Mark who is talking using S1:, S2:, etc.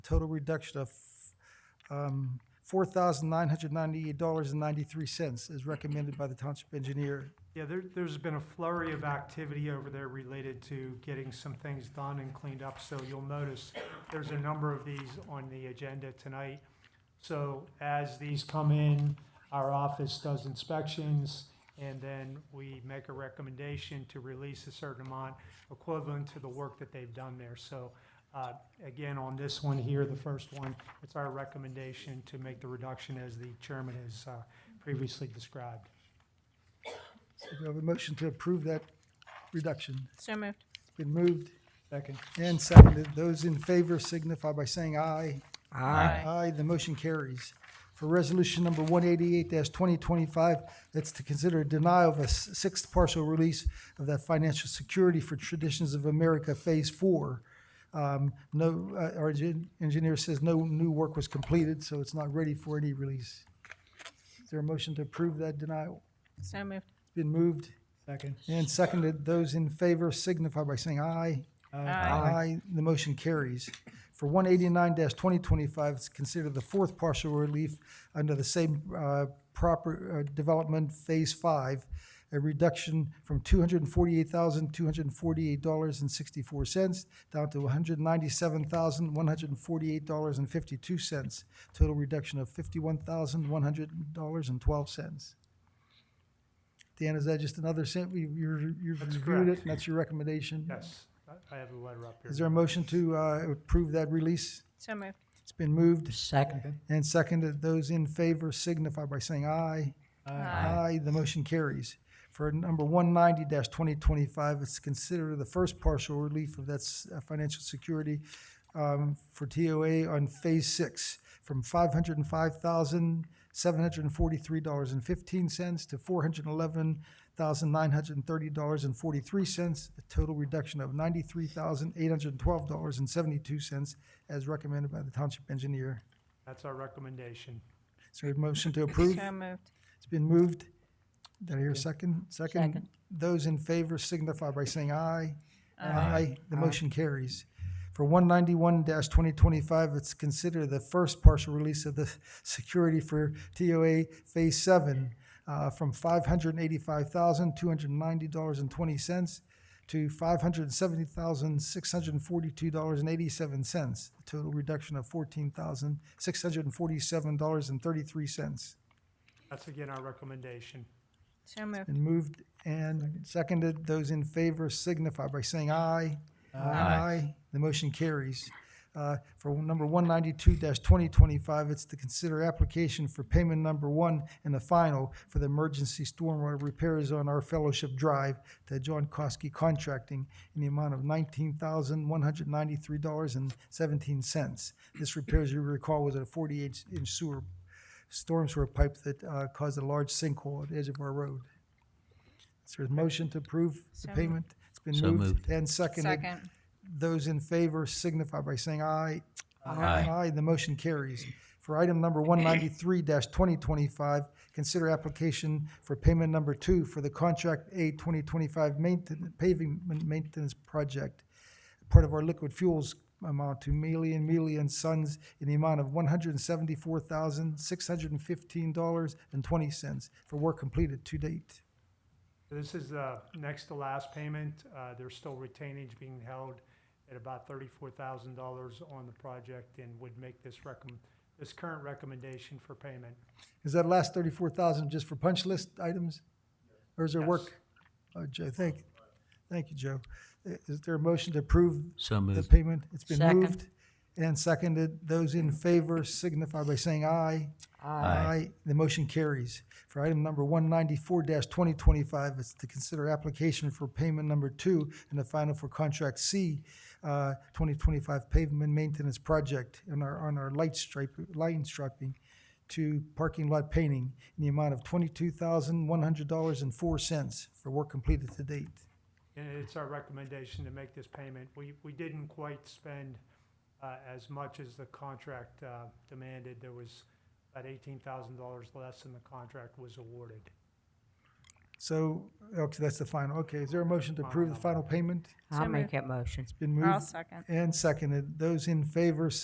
S1: total reduction of um, $4,998.93 as recommended by the township engineer.
S2: Yeah, there, there's been a flurry of activity over there related to getting some things done and cleaned up. So you'll notice there's a number of these on the agenda tonight. So as these come in, our office does inspections and then we make a recommendation to release a certain amount equivalent to the work that they've done there. So, uh, again, on this one here, the first one, it's our recommendation to make the reduction as the chairman has, uh, previously described.
S1: So do I have a motion to approve that reduction?
S3: So moved.
S1: It's Been moved
S2: Second.
S1: and seconded. Those in favor signify by saying aye.
S3: Aye.
S1: Aye, the motion carries. For resolution number one eighty-eight twenty twenty-five, that's to consider denial of a s- sixth partial release of that financial security for Traditions of America Phase Four. Um, no, uh, our engi- engineer says no new work was completed, so it's not ready for any release. Is there a motion to approve that denial?
S3: So moved.
S1: It's Been moved
S2: Second.
S1: and seconded. Those in favor signify by saying aye. Aye. The motion carries. For one eighty-nine twenty twenty-five, it's considered the fourth partial relief under the same uh, proper uh, development Phase Five, a reduction from two hundred and forty-eight thousand, two hundred and forty-eight dollars and sixty-four cents down to one hundred and ninety-seven thousand, one hundred and forty-eight dollars and fifty-two cents. Total reduction of fifty-one thousand, one hundred dollars and twelve cents. Dan, is that just another cent? We- you- You've reviewed
S2: That's
S1: it,
S2: correct.
S1: and that's your recommendation?
S2: Yes, I- I have the letter up here.
S1: Is there a motion to uh, approve that release?
S3: So moved.
S1: It's been moved
S4: Second.
S1: and seconded. Those in favor signify by saying aye. Aye. The motion carries. For number 190-2025, it's considered the first partial relief of that s- uh, financial security um, for TOA on Phase 6 from $505,743.15 to $411,930.43, a total reduction of $93,812.72 as recommended by the township engineer.
S2: That's our recommendation.
S1: Is there a motion to approve?
S3: So moved.
S1: It's been moved. Did I hear a second? Second. Those in favor signify by saying aye. Aye. The motion carries. For one ninety-one twenty twenty-five, it's considered the first partial release of the security for TOA Phase Seven uh, from five hundred and eighty-five thousand, two hundred and ninety dollars and twenty cents to five hundred and seventy thousand, six hundred and forty-two dollars and eighty-seven cents. a Total reduction of fourteen thousand, six hundred and forty-seven dollars and thirty-three cents.
S2: That's again our recommendation.
S3: So moved.
S1: Been moved and seconded. Those in favor signify by saying aye. Aye. The motion carries. Uh, For number 192-2025, it's to consider application for payment number one and the final for the emergency stormwater repairs on our Fellowship Drive to John Kosky Contracting in the amount of $19,193.17. This repair, as you recall, was a 48-inch sewer, storm sewer pipe that uh, caused a large sinkhole at the edge of our road. Is there a motion to approve the
S3: So-
S1: payment? It's been
S4: So
S1: moved
S4: moved.
S1: and seconded.
S3: Second.
S1: Those in favor signify by saying aye.
S4: Aye.
S1: the motion carries. For item number one ninety-three twenty twenty-five, consider application for payment number two for the contract A twenty twenty-five maintenance, paving ma- maintenance project, part of our liquid fuels amount to Mealy and Mealy and Sons in the amount of one hundred and seventy-four thousand, six hundred and fifteen dollars and twenty cents for work completed to date.
S2: This is the next to last payment. Uh, There's still retainage being held at about thirty-four thousand dollars on the project and would make this recommend, this current recommendation for payment.
S1: Is that last thirty-four thousand just for punch list items? Or is there
S2: Yes.
S1: work? Oh, Joe, thank, thank you, Joe. I- Is there a motion to approve
S4: So
S1: the
S4: moved.
S1: payment? It's been
S4: Second.
S1: moved and seconded. Those in favor signify by saying aye. The motion carries. For item number one ninety-four twenty twenty-five, it's to consider application for payment number two and the final for contract C, uh, twenty twenty-five pavement maintenance project on our, on our light stripe, line striping to parking lot painting in the amount of twenty-two thousand, one hundred dollars and four cents for work completed to date.
S2: And it's our recommendation to make this payment. We, we didn't quite spend uh, as much as the contract uh, demanded. There was about eighteen thousand dollars less than the contract was awarded.
S1: So, okay, that's the final. Okay, is there a motion to approve the final payment?
S3: So
S4: I'll
S3: moved.
S4: make that motion.
S1: Been
S3: I'll
S1: moved
S3: second.
S1: and seconded. Those in favor